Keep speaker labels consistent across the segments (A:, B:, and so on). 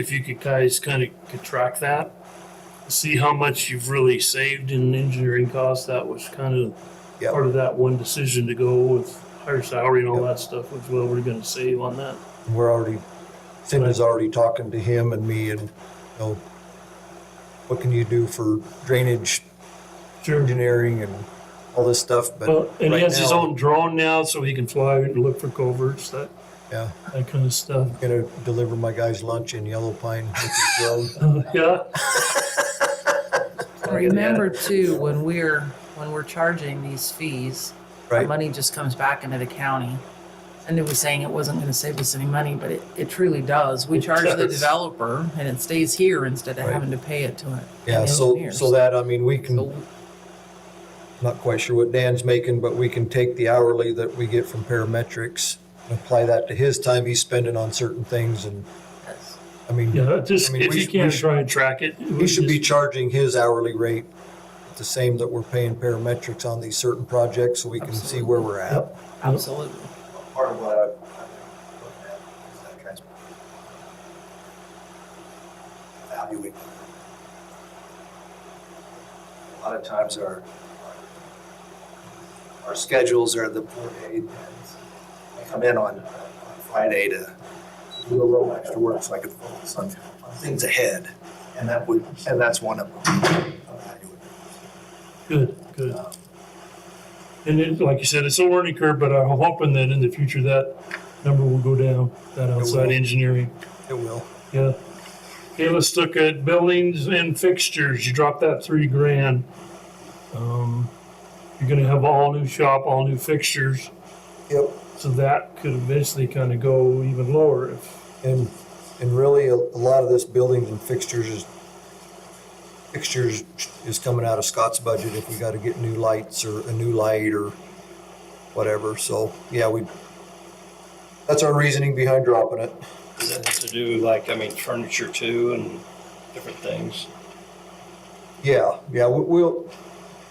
A: if you could guys kind of could track that, see how much you've really saved in engineering costs. That was kind of
B: Yep.
A: part of that one decision to go with higher salary and all
B: Yep.
A: that stuff was what we're going to save on that.
B: We're already, Tim is already talking to him and me and, you know, what can you do for drainage
A: Sure.
B: engineering and all this stuff, but
A: Well, and
B: right
A: he has his
B: now-
A: own drone now, so he can fly and look for coverts, that
B: yeah,
A: that kind of stuff.
B: I'm gonna deliver my guys lunch in Yellow Pine with the drone.
A: Uh, yeah.
C: And Remember too, when we're, when we're charging these fees, our
B: Right.
C: money just comes back into the county. And it was saying it wasn't gonna save us any money, but it, it truly does. We
A: It
C: charge the
A: does.
C: developer and it stays here instead of
B: Right.
C: having to pay it to it.
B: Yeah,
C: the
B: so,
C: engineers.
B: so that, I mean, we
C: So
B: can, not quite sure what Dan's making, but we can take the hourly that we get from parametrics and apply that to his time he's spending on certain things and,
C: that's-
B: I mean,
A: Yeah, just
B: I mean,
A: if
B: we
A: you
B: sh- we
A: can
B: sh-
A: try and track it. it
B: He
A: would
B: should be
A: just-
B: charging his hourly rate, the same that we're paying parametrics on these certain projects, so we can see where we're at.
C: Absolutely.
D: part of what I- I've been looking at is that transport. Evaluate. A lot of times our, our schedules are the poor aid. I come in on on Friday to do a little extra work so I could focus on on things ahead. And that would, and that's one of them.
A: Good, good. And it, like you said, it's a learning curve, but I'm hoping that in the future that number will go down, that outside
B: will.
A: engineering.
B: It will.
A: Yeah. Okay, let's look at buildings and fixtures. You drop that three grand. Um, you're gonna have all new shop, all new fixtures.
B: Yep.
A: So that could eventually kind of go even lower if,
B: And, and really, a, a lot of this buildings and fixtures is, fixtures is coming out of Scott's budget if we gotta get new lights or a new light or whatever, so, yeah, we, that's our reasoning behind dropping it.
E: Does that have to do like, I mean, furniture too and different things?
B: Yeah, yeah, we- we'll,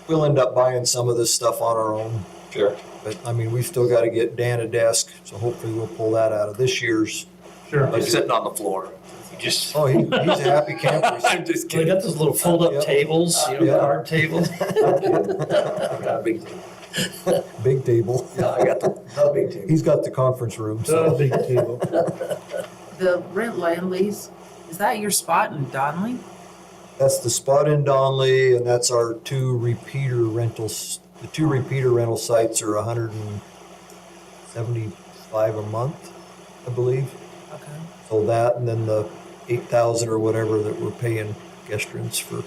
B: we'll end up buying some of this stuff on our own.
E: Sure.
B: But I mean, we've still got to get Dan a desk, so hopefully we'll pull that out of this year's.
A: sure.
B: Like-
D: Sitting on the floor.
E: Just,
B: Oh, he, he's a happy camper.
D: I'm just
E: they got those little fold-up
B: Yep.
E: tables, you
B: Yeah.
E: know, card tables.
D: I've got a big table.
B: Big table.
D: Yeah, I got the, the big table. Uh-huh.
B: He's got the conference room,
A: Uh,
B: so
A: big table.
C: The rent land lease, is that your spot in Donley?
B: that's the spot in Donley, and that's our two repeater rentals. The two repeater rental sites are hundred and seventy-five a month, I believe.
C: Okay.
B: So that, and then the eight thousand or whatever that we're paying Gestrans for.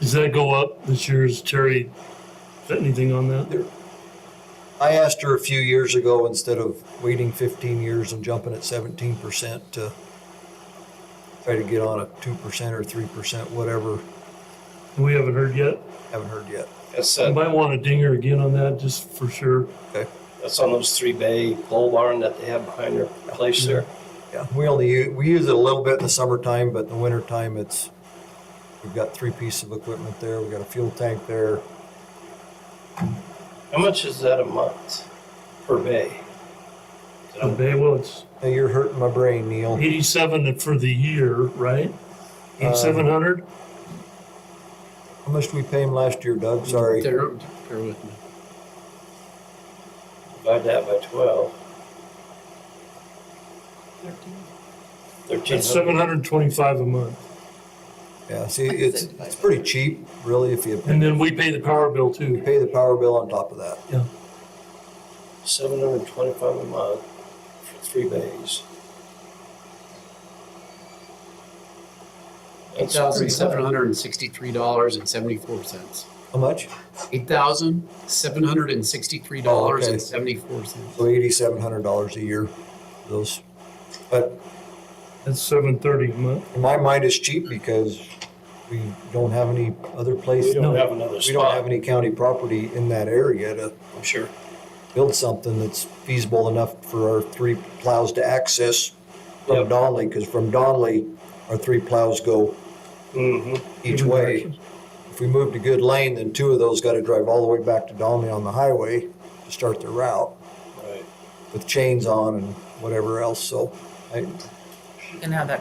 A: Does that go up this year's, Terry? Is that anything on that?
B: I asked her a few years ago, instead of waiting fifteen years and jumping at seventeen percent to try to get on a two percent or three percent, whatever,
A: We haven't heard yet.
B: haven't heard yet.
E: That's,
A: You
E: uh,
A: might want to ding her again on that, just for sure.
E: that's on those three bay pole barn that they have behind their place there.
B: Yeah, we only, u- we use it a little bit in the summertime, but in the wintertime, it's, we've got three pieces of equipment there, we've got a fuel tank there.
E: How much is that a month per bay?
A: The bay, well, it's
B: Hey, you're hurting my brain, Neil.
A: eighty-seven for the year, right? Eighty-seven hundred?
B: How much did we pay him last year, Doug? Sorry.
F: Bear, bear with me.
E: Divide that by twelve. Thirteen
A: It's seven
E: hundred.
A: hundred and twenty-five a month.
B: Yeah, see, it's, it's pretty cheap, really, if you
A: And then we pay the power bill
B: you
A: too.
B: pay the power bill on top of that.
E: Seven hundred and twenty-five a month for three bays.
F: Eight
E: That's
F: thousand
E: pretty
F: seven hundred and sixty-three dollars and seventy-four cents.
B: How much?
F: Eight thousand seven hundred and sixty-three dollars and seventy-four cents.
B: So eighty-seven hundred dollars a year, those. But
A: That's seven thirty a month.
B: in my mind, it's cheap because we don't have any other place.
E: We
A: No.
E: don't have another
B: We don't have
E: spot,
B: any county property in that area to
E: I'm sure.
B: build something that's feasible enough for our three plows to access from
E: Yep.
B: Donley, because from Donley, our three plows go
E: Mm-hmm.
B: each way. If we move to Good Lane, then two of those got to drive all the way back to Donley on the highway to start their route
E: Right.
B: with chains on and whatever else, so I,
C: You can have that